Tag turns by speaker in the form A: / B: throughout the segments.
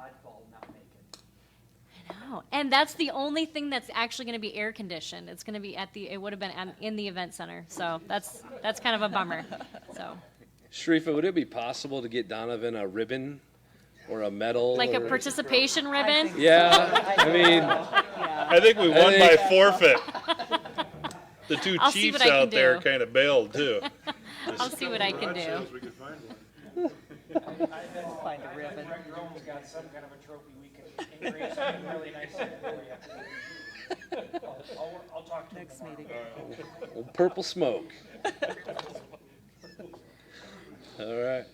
A: dodgeball not make it.
B: No, Oh, and that's the only thing that's actually going to be air conditioned. It's going to be at the. It would have been at, in the event center, so that's that's kind of a bummer. So,
C: Sharifa, would it be possible to get Donovan a ribbon or a medal?
B: like a
C: or-
B: participation ribbon.
C: Yeah, I mean,
D: I think we won by
C: think-
D: forfeit. The two
B: I'll see
D: chiefs
B: what I can
D: out there
B: do.
D: kind of bailed too.
B: I'll see what I can do.
E: we could find one.
A: Find a ribbon. Grove's got some kind of a trophy we can engrave something really nice for you. I'll, I'll, I'll talk to him tomorrow.
C: well, purple smoke. All right.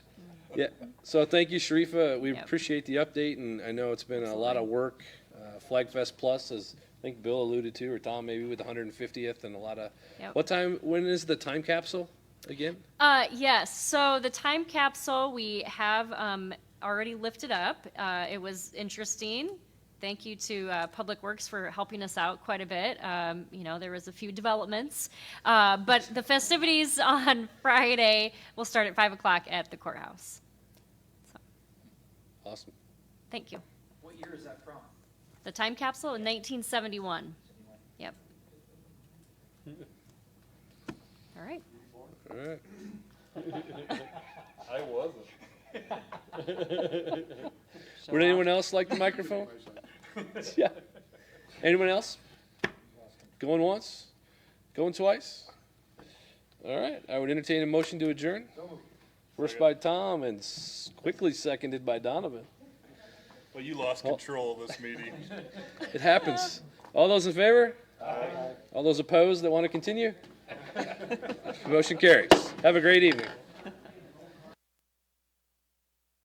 C: Yeah, so thank you, Sharifa. We
B: Yep.
C: appreciate the update, and I know it's been a lot of work. Uh, Flag Fest Plus, as I think Bill alluded to, or Tom maybe with the 150th and a lot of,
B: Yep.
C: what time, when is the time capsule again?
B: Uh, yes. So the time capsule we have um, already lifted up. Uh, it was interesting. Thank you to uh, Public Works for helping us out quite a bit. Um, you know, there was a few developments, uh, but the festivities on Friday will start at five o'clock at the courthouse.
C: Awesome.
B: Thank you.
A: What year is that from?
B: The time capsule in 1971. Yep. All right.
C: All right.
D: I wasn't.
C: Would anyone else like the microphone? yeah. Anyone else? Going once? Going twice? All right. I would entertain a motion to adjourn. First by Tom and s- quickly seconded by Donovan.
D: Well, you lost control of this meeting.
C: It happens. All those in favor? All those opposed that want to continue? Motion carries. Have a great evening.